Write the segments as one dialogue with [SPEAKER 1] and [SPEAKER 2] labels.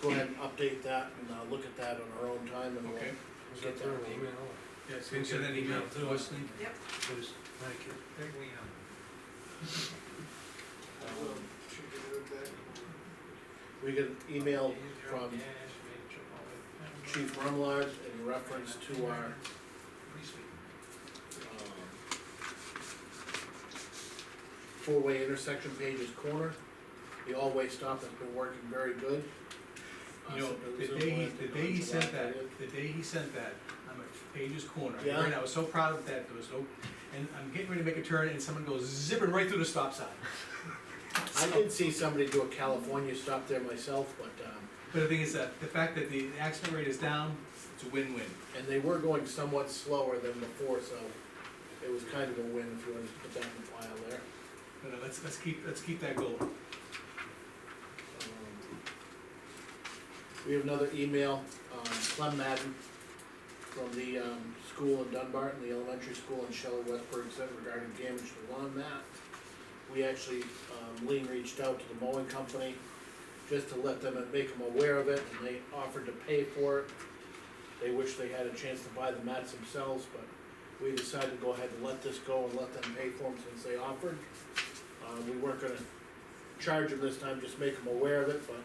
[SPEAKER 1] update that and, uh, look at that on our own time and we'll.
[SPEAKER 2] Okay.
[SPEAKER 3] Was that through an email?
[SPEAKER 2] Yeah,
[SPEAKER 3] Can you send an email to us, Nick?
[SPEAKER 4] Yep.
[SPEAKER 3] Please, thank you.
[SPEAKER 2] Thank you, Leon.
[SPEAKER 1] We get an email from Chief Rumlard in reference to our, um, four-way intersection Page's Corner. The all-way stop has been working very good.
[SPEAKER 2] You know, the day, he- the day he sent that, the day he sent that, I'm at Page's Corner,
[SPEAKER 1] Yeah.
[SPEAKER 2] and I was so proud of that, there was no, and I'm getting ready to make a turn, and someone goes zipping right through the stop sign.
[SPEAKER 1] I did see somebody do a California stop there myself, but, um,
[SPEAKER 2] But the thing is that, the fact that the accident rate is down, it's a win-win.
[SPEAKER 1] and they were going somewhat slower than before, so it was kind of a win if you wanted to put that in the file there.
[SPEAKER 2] But uh, let's, let's keep, let's keep that going.
[SPEAKER 1] Um, We have another email, um, Clem Madden from the, um, school in Dunbar, and the elementary school in Shelley Westburg said regarding damage to lawn mat. We actually, um, Lean reached out to the mowing company just to let them and make them aware of it, and they offered to pay for it. They wish they had a chance to buy the mats themselves, but we decided to go ahead and let this go and let them pay for them since they offered. Um, we weren't gonna charge them this time, just make them aware of it, but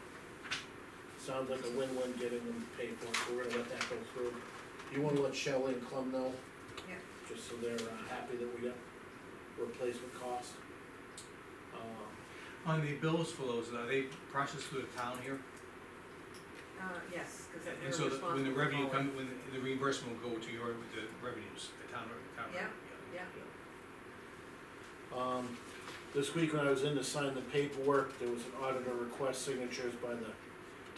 [SPEAKER 1] sounds like a win-win getting them paid for, so we're gonna let that go through. You wanna let Shelley and Clem know?
[SPEAKER 4] Yeah.
[SPEAKER 1] Just so they're uh, happy that we got replacement cost. Uh,
[SPEAKER 2] On the bills for those, are they processed through the town here?
[SPEAKER 4] Uh, yes, cause they're
[SPEAKER 2] And so the-
[SPEAKER 4] responsible.
[SPEAKER 2] when the
[SPEAKER 4] for
[SPEAKER 2] revenue
[SPEAKER 4] mowing.
[SPEAKER 2] come, when the- the reimbursement will go to your, the revenues, the town, the town.
[SPEAKER 4] Yeah,
[SPEAKER 2] revenue,
[SPEAKER 4] Yeah,
[SPEAKER 1] Um, this week when I was in to sign the paperwork, there was an auditor request signatures by the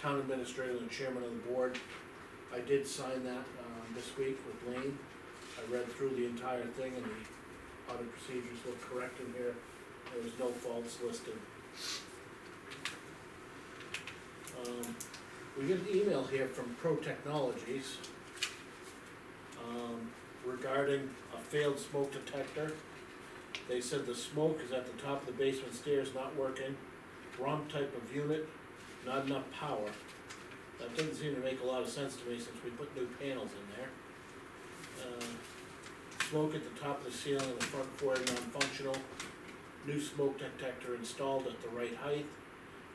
[SPEAKER 1] town administrator and chairman of the board. I did sign that, um, this week with Lane. I read through the entire thing and the audit procedures look correct in here. There was no faults listed. Um, we get an email here from Pro Technologies um, regarding a failed smoke detector. They said the smoke is at the top of the basement stairs, not working, wrong type of unit, not enough power. That doesn't seem to make a lot of sense to me since we put new panels in there. Uh, Smoke at the top of the ceiling in the front floor, non-functional, new smoke detector installed at the right height,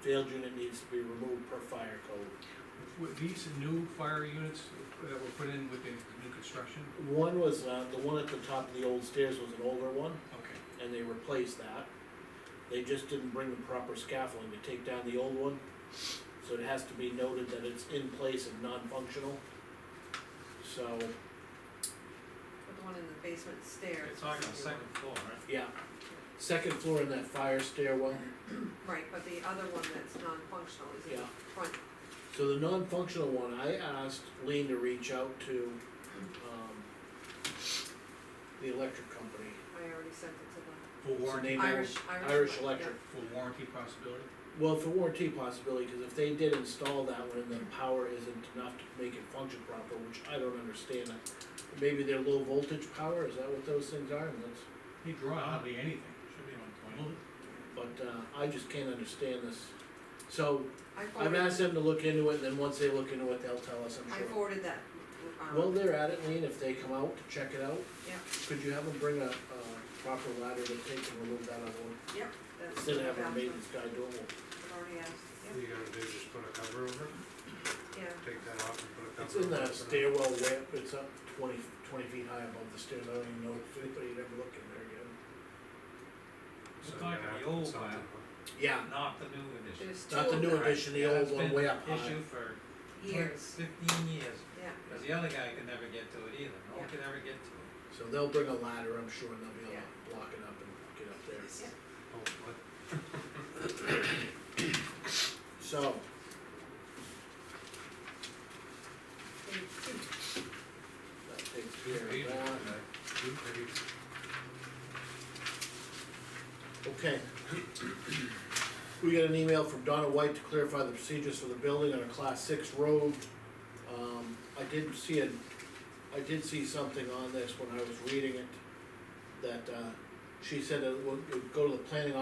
[SPEAKER 1] failed unit needs to be removed per fire code.
[SPEAKER 2] yeah. Were these new fire units that were put in with the new construction?
[SPEAKER 1] One was, uh, the one at the top of the old stairs was an older one,
[SPEAKER 2] Okay.
[SPEAKER 1] and they replaced that. They just didn't bring the proper scaffolding to take down the old one, so it has to be noted that it's in place and non-functional. So,
[SPEAKER 4] but the one in the basement stairs.
[SPEAKER 3] It's on the
[SPEAKER 4] is the
[SPEAKER 3] second floor, right?
[SPEAKER 1] yeah, second floor in that fire stairwell,
[SPEAKER 4] one- Right, but the other one that's non-functional is in
[SPEAKER 1] yeah.
[SPEAKER 4] the front,
[SPEAKER 1] So the non-functional one, I asked Lean to reach out to, um, the electric company.
[SPEAKER 4] I already sent it to the
[SPEAKER 2] For warranty,
[SPEAKER 1] Name
[SPEAKER 4] Irish, Irish.
[SPEAKER 1] Irish
[SPEAKER 4] one,
[SPEAKER 1] Electric,
[SPEAKER 2] for warranty possibility?
[SPEAKER 1] Well, for warranty possibility, cause if they did install that one and the power isn't enough to make it function proper, which I don't understand. uh, Maybe they're low voltage power, is that what those things are, and that's,
[SPEAKER 2] They draw hardly anything.
[SPEAKER 3] Should be on
[SPEAKER 2] Well,
[SPEAKER 3] twenty.
[SPEAKER 1] but, uh, I just can't understand this. So,
[SPEAKER 4] yeah. I
[SPEAKER 1] I've
[SPEAKER 4] forwarded,
[SPEAKER 1] asked them to look into it, and then once they look into it, they'll tell us, I'm
[SPEAKER 4] I
[SPEAKER 1] sure.
[SPEAKER 4] forwarded that, um,
[SPEAKER 1] Well, they're at it, Lean, if they come out to check it out.
[SPEAKER 4] Yeah.
[SPEAKER 1] Could you have them bring a, uh, proper ladder to take and remove that other one,
[SPEAKER 4] yep, that's.
[SPEAKER 1] instead of having a
[SPEAKER 4] that's-
[SPEAKER 1] maintenance guy do it?
[SPEAKER 4] I've already asked,
[SPEAKER 3] What are you gonna do, just put a cover over it?
[SPEAKER 4] yeah, yeah,
[SPEAKER 3] Take that off and put a cover over it?
[SPEAKER 1] It's in the
[SPEAKER 3] Put a-
[SPEAKER 1] stairwell ramp, it's up twenty, twenty feet high above the stairs, I don't even know if anybody had ever looked in there yet.
[SPEAKER 5] We're
[SPEAKER 3] so you're
[SPEAKER 5] talking
[SPEAKER 3] gonna have
[SPEAKER 5] the old
[SPEAKER 3] something
[SPEAKER 5] one,
[SPEAKER 3] put-
[SPEAKER 1] Yeah,
[SPEAKER 5] not the new edition.
[SPEAKER 4] there's two
[SPEAKER 1] not the
[SPEAKER 4] of
[SPEAKER 1] new
[SPEAKER 4] them,
[SPEAKER 1] edition, the old one way up
[SPEAKER 5] That's
[SPEAKER 1] high.
[SPEAKER 5] been an issue for
[SPEAKER 4] years,
[SPEAKER 5] fifteen years,
[SPEAKER 4] yeah,
[SPEAKER 5] cause the other guy could never get to it either, no one could ever get to it.
[SPEAKER 1] So they'll bring a ladder, I'm sure, and they'll be able to block it up and get up there.
[SPEAKER 3] Oh, what?
[SPEAKER 1] So,
[SPEAKER 4] there's two.
[SPEAKER 1] that takes care of that.
[SPEAKER 3] Maybe it's
[SPEAKER 1] Okay. We got an email from Donna White to clarify the procedures for the building on a class six road. Um, I did see a, I did see something on this when I was reading it, that, uh, she said it would, it would go to the planning